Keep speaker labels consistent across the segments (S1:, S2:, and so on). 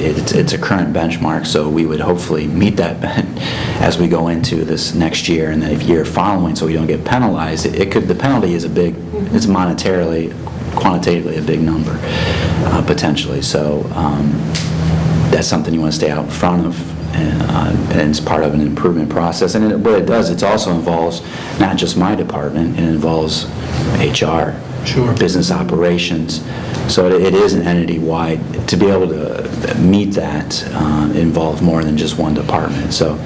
S1: It's, it's a current benchmark, so we would hopefully meet that ben- as we go into this next year and the year following, so we don't get penalized. It- It could, the penalty is a big, it's monetarily, quantitatively a big number, uh, potentially. So um, that's something you want to stay out in front of, and uh, and it's part of an improvement process. And it- what it does, it also involves not just my department, it involves HR.
S2: Sure.
S1: Business operations. So it it is an entity-wide, to be able to meet that uh, involved more than just one department. So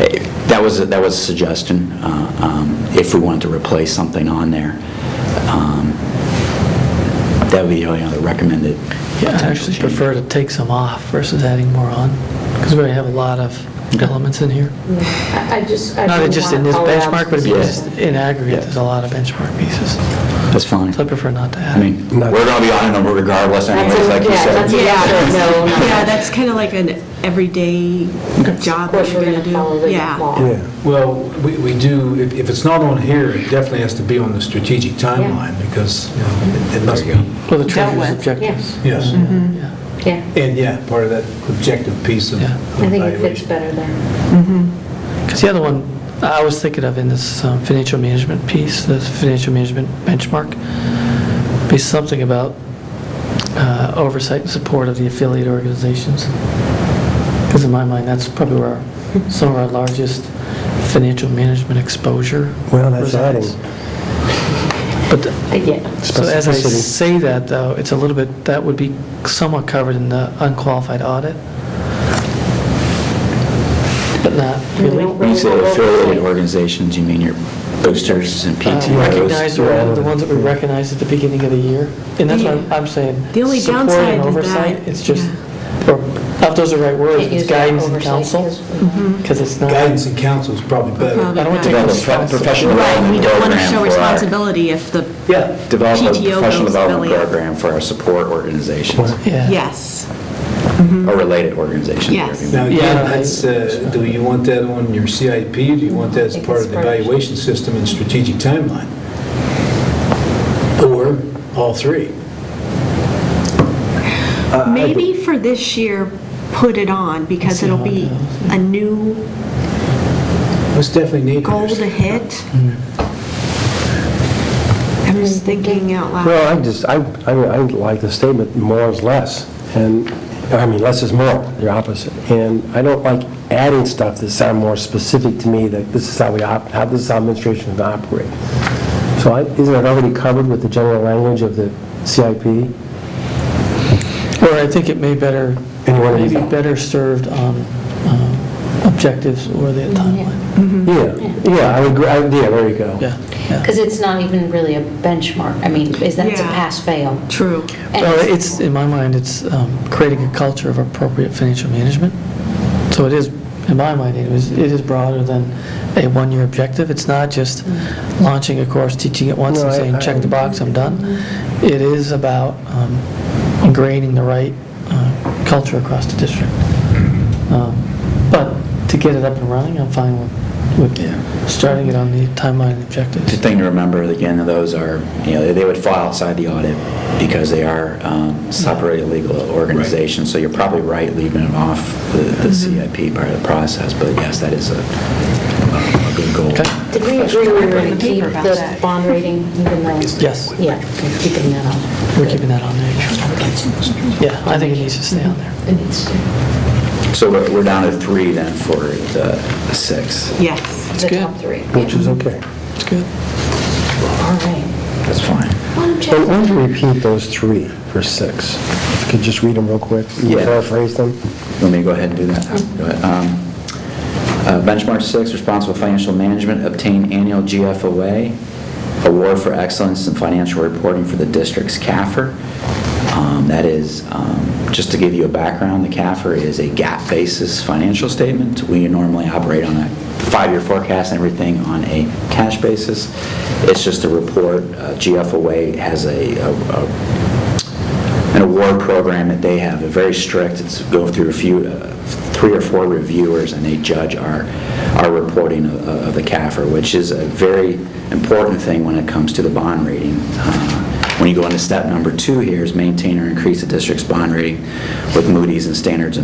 S1: eh, that was, a- that was a suggestion, uh, um, if we wanted to replace something on there. um, That would be the only other recommended
S3: Yeah, I
S1: potential
S3: actually
S1: change.
S3: prefer to take some off versus adding more on, because we already have a lot of elements in here.
S4: I I just, I
S3: Not
S4: don't
S3: just
S4: wanna
S3: in this
S4: call it out
S3: benchmark, but
S1: Yeah.
S3: because in aggregate, there's a lot of benchmark pieces.
S1: That's fine.
S3: So I prefer not to
S1: I
S3: add.
S1: mean, we're going to be on it regardless anyways, like you
S4: yeah, that's a-
S1: said.
S4: Yeah, no, no.
S5: Yeah, that's kind of like an everyday
S4: Of course,
S5: job that you're
S4: we're gonna
S5: going to do.
S4: follow the
S5: Yeah.
S4: law.
S2: Well, we we do, if if it's not on here, it definitely has to be on the strategic timeline, because, you know, it it must be,
S3: Well, the treasurer's
S5: with,
S3: objectives.
S2: yes.
S4: Mm-hmm.
S3: Yeah.
S4: Yeah,
S2: And, yeah, part of that objective piece of
S3: Yeah.
S2: of
S4: I think it fits
S2: evaluation.
S4: better there.
S3: Because the other one, I was thinking of in this um, financial management piece, this financial management benchmark, be something about uh, oversight and support of the affiliate organizations. Because in my mind, that's probably where our- some of our largest financial management exposure
S6: Well, that's adding.
S3: resides. But, th-
S4: Uh, Yeah,
S3: so as I
S6: Specificity.
S3: say that, though, it's a little bit, that would be somewhat covered in the unqualified audit, but not really.
S1: When you say affiliated organizations, you mean your boosters and
S3: Uh,
S1: PTOs?
S3: Recognize the one- the ones that we recognized at the beginning of the year, and that's what I'm- I'm saying.
S5: The only
S3: support and
S5: downside is
S3: oversight,
S5: that-
S3: It's just, or, I don't know if those are the right words,
S4: Can't
S3: it's
S4: use that
S3: guidance and
S4: oversight
S3: counsel,
S4: because-
S5: Mm-hmm.
S3: because it's not, I
S2: Guidance and counsel is probably better.
S5: Probably
S3: don't want to
S5: not.
S3: take
S1: Develop a prof- professional
S3: responsibility.
S5: Right, we
S1: development
S5: don't want to
S1: program
S5: show
S1: for our-
S5: responsibility if the,
S3: Yeah,
S1: Develop a
S5: PTO
S1: professional
S5: goes
S1: development
S5: affiliate.
S1: program for our support organizations,
S3: yeah.
S5: yes,
S1: or related organizations.
S5: Yes.
S1: whatever you
S2: Now,
S1: want.
S2: again,
S3: Yeah, I-
S2: that's, uh, do you want that on your CIP, do you want that as
S4: Think
S2: part
S4: it's
S2: of the
S4: part of-
S2: evaluation system and strategic timeline? Or all three?
S5: maybe for this year, put it on, because
S3: See
S5: it'll
S3: how it
S5: be
S3: goes.
S5: a new
S2: Most definitely need.
S5: goal to hit. I'm just thinking out loud.
S6: Well, I just, I, I mean, I like the statement, more is less, and, I mean, less is more, they're opposite. And I don't like adding stuff that sound more specific to me, that this is how we, op- how this is how administration is operate. So I- isn't it already covered with the general language of the CIP?
S3: Or I think it may better,
S6: Anyone who's-
S3: maybe better served on um, objectives or the timeline.
S6: Yeah, yeah, I would agree, I- yeah, there you go.
S3: Yeah, yeah.
S4: because it's not even really a benchmark. I mean, is that it's a
S5: Yeah.
S4: pass-fail?
S5: True.
S4: And
S3: Well, it's, in my mind, it's um, creating a culture of appropriate financial management. So it is, in my mind, it was, it is broader than a one-year objective. It's not just launching a course, teaching it once
S6: No,
S3: and
S6: I-
S3: saying, check the
S6: I-
S3: box, I'm done. It is about um, ingraining the right uh, culture across the district. Um, But to get it up and running, I'm fine with, with starting it on the timeline and
S1: The
S3: objectives.
S1: thing to remember, again, of those are, you know, they would fall outside the audit because they are um, separate legal organizations, so you're probably right leaving it off the- the
S4: Mm-hmm.
S1: CIP part of the process, but yes, that is a a good goal.
S3: Okay.
S4: Did we agree we were going to keep the bond rating even though?
S3: Yes,
S4: Yeah, we're keeping that on.
S3: we're keeping that on there. Yeah, I think it needs to stay on there.
S4: It needs to.
S1: So we're we're down to three then for the six.
S5: Yes.
S4: The
S3: good.
S4: top three.
S6: Which is okay.
S3: It's good.
S4: All right.
S1: That's fine.
S6: And why don't you repeat those three for six? If you Could just read them real quick, you
S1: Yeah.
S6: paraphrase them?
S1: Let me go ahead and do that. Go ahead. Um, uh, Benchmark six, responsible financial management, obtain annual GFOA, award for excellence in financial reporting for the district's CAFR. Um, That is, um, just to give you a background, the CAFR is a gap basis financial statement. We normally operate on a five-year forecast and everything on a cash basis. It's just a report. Uh, GFOA has a a- a an award program that they have, a very strict, it's go through a few, uh, three or four reviewers, and they judge our, our reporting of- of the CAFR, which is a very important thing when it comes to the bond rating. Uh, When you go into step number two here is maintain or increase the district's bond rating with Moody's and Standards and